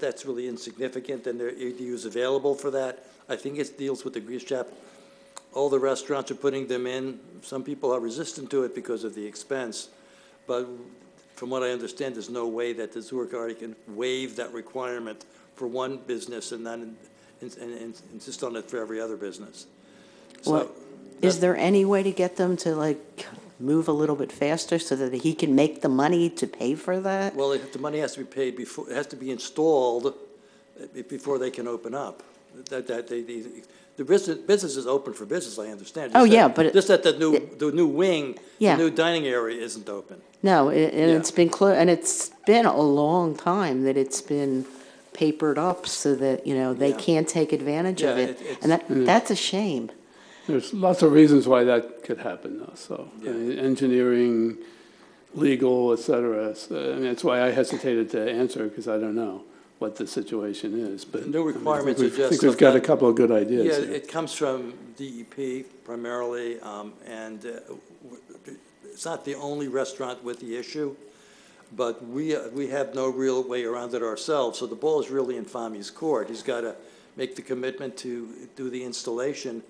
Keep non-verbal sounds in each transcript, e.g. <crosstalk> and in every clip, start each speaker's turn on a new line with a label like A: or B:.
A: that's really insignificant, and their ADU is available for that. I think it deals with the grease trap. All the restaurants are putting them in. Some people are resistant to it because of the expense. But from what I understand, there's no way that the Zurich Authority can waive that requirement for one business and then ins- and- and insist on it for every other business.
B: Well,
A: So,
B: is there any way to get them to like move a little bit faster so that he can make the money to pay for that?
A: well, if the money has to be paid before, it has to be installed uh, be- before they can open up. That, that, they, the, the business, business is open for business, I understand.
B: Oh,
A: Just
B: yeah,
A: that-
B: but it-
A: Just that the new, the new wing, the
B: Yeah.
A: new dining area isn't open.
B: No, a- and
A: Yeah.
B: it's been clo- and it's been a long time that it's been papered up so that, you know, they
A: Yeah.
B: can't take advantage of
A: Yeah,
B: it. Hmm.
A: it- it's-
B: And that, that's a shame.
C: There's lots of reasons why that could happen, though, so, I
A: Yeah.
C: mean, engineering, legal, et cetera. So, I mean, that's why I hesitated to answer, because I don't know what the situation is,
A: No
C: but. I mean, I think
A: requirements are
C: we've- I
A: just
C: think we've got a
A: something-
C: couple of good
A: Yeah,
C: ideas here.
A: it comes from DEP primarily, um, and uh, w- it's not the only restaurant with the issue, but we, uh, we have no real way around it ourselves, so the ball is really in Fami's court. He's got to make the commitment to do the installation.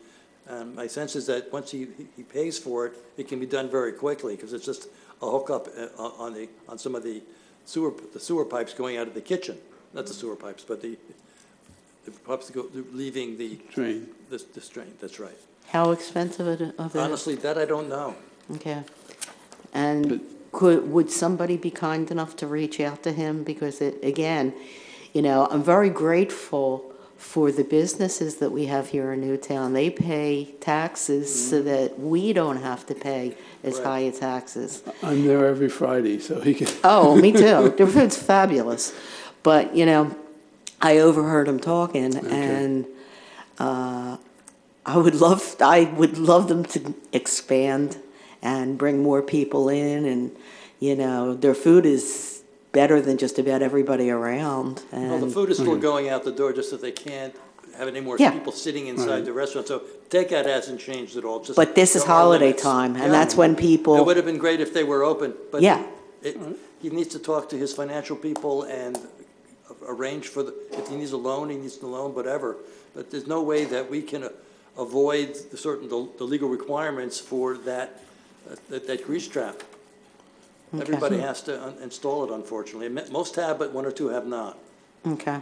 A: And my sense is that once he, he pays for it, it can be done very quickly, because it's just a hookup uh, on on the, on some of the sewer, the sewer pipes going out of the kitchen, not the sewer pipes, but the, the pipes that go, leaving the
C: Drain.
A: this, this drain, that's right.
B: How expensive it, of it is.
A: Honestly, that I don't know.
B: Okay. And could, would somebody be kind enough to reach out to him? Because it, again, you know, I'm very grateful for the businesses that we have here in Newtown. They pay taxes so that we don't have to pay as
A: Right.
B: high a taxes.
C: I'm there every Friday, so he can,
A: Uh,
B: Oh, me too. Their food's fabulous. But, you know, I overheard him talking and uh, I would love I would love them to expand and bring more people in and you know, their food is better than just about everybody around and
A: Well, the food is still going out the door, just that they can't have any more
B: Yeah.
A: people sitting inside the restaurant. So takeout hasn't changed at all, just.
B: but this is
A: there are
B: holiday
A: limits.
B: time and
A: Yeah.
B: that's when
A: It
B: people
A: would have been great if they were open, but.
B: Yeah.
A: it- He needs to talk to his financial people and arrange for, the if he needs a loan, he needs a loan, whatever. But there's no way that we can uh, avoid the certain, the the legal requirements for that, uh, that that grease trap. Everybody has to un- install it, unfortunately. And mo- Most have, but one or two have not.
B: Okay.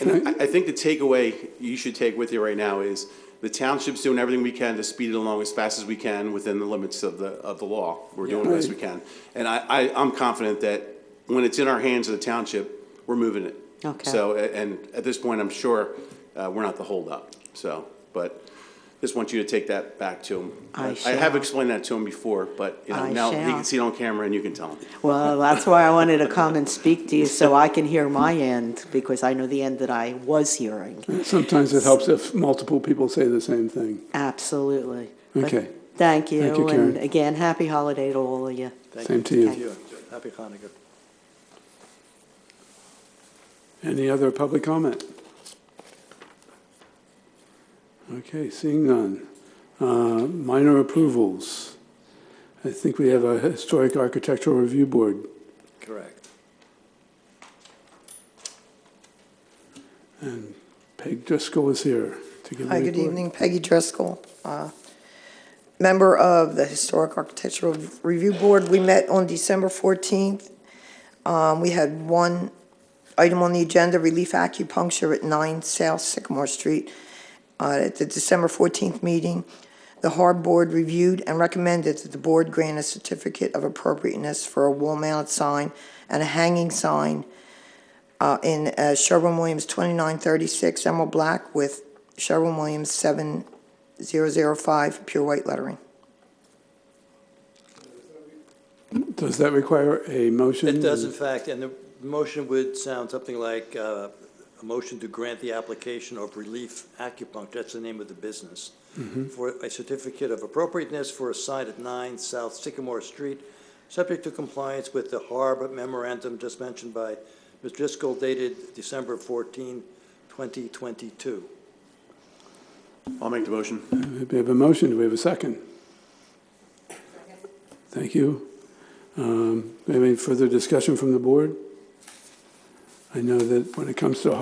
D: And I, I think the takeaway you should take with you right now is the township's doing everything we can to speed it along as fast as we can within the limits of the, of the law. We're doing the best we can. And I, I, I'm confident that when it's in our hands of the township, we're moving it.
B: Okay.
D: So, a- and at this point, I'm sure, uh, we're not the holdup, so, but just want you to take that back to him.
B: I
D: have
B: shall.
D: explained that to him before, but, you know,
B: I
D: now he
B: shall.
D: can see it on camera and you can tell him.
B: Well, that's why I wanted to come and speak to you so I can hear my end because I know the end that I was hearing.
C: <laughs> sometimes it helps if multiple people say the same thing.
B: Absolutely. But
C: Okay.
B: Thank you.
C: Thank you,
B: And
C: Karen.
B: again, happy holiday to all of you.
A: Thank
C: Same to you.
A: Thank you. Happy Hanukkah.
C: Any other public comment? Okay, seeing none. Uh, Minor approvals. I think we have a Historic Architectural Review Board,
A: Correct.
C: and Peg Driscoll is here to give a
E: Hi, good
C: report.
E: evening. Peggy Driscoll, uh, member of the Historic Architectural Review Board. We met on December 14th. Um, We had one item on the agenda, relief acupuncture at 9 South Sycamore Street. Uh, At the December 14th meeting, the Harbor Board reviewed and recommended that the board grant a certificate of appropriateness for a wall-mounted sign and a hanging sign uh, in uh, Sherwin-Williams 2936 Emerald Black with Sherwin-Williams, 7005, pure white lettering.
C: Does that require a motion?
A: It does, in fact, and the motion would sound something like uh, a motion to grant the application of relief acupuncture, that's the name of the business,
C: Mm-hmm.
A: for a certificate of appropriateness for a site at 9 South Sycamore Street, subject to compliance with the HARB memorandum just mentioned by Ms. Driscoll dated December 14, 2022.
D: I'll make the motion.
C: We have a motion, do we have a second? Thank you. Um, we have Any further discussion from the board? I know that when it comes to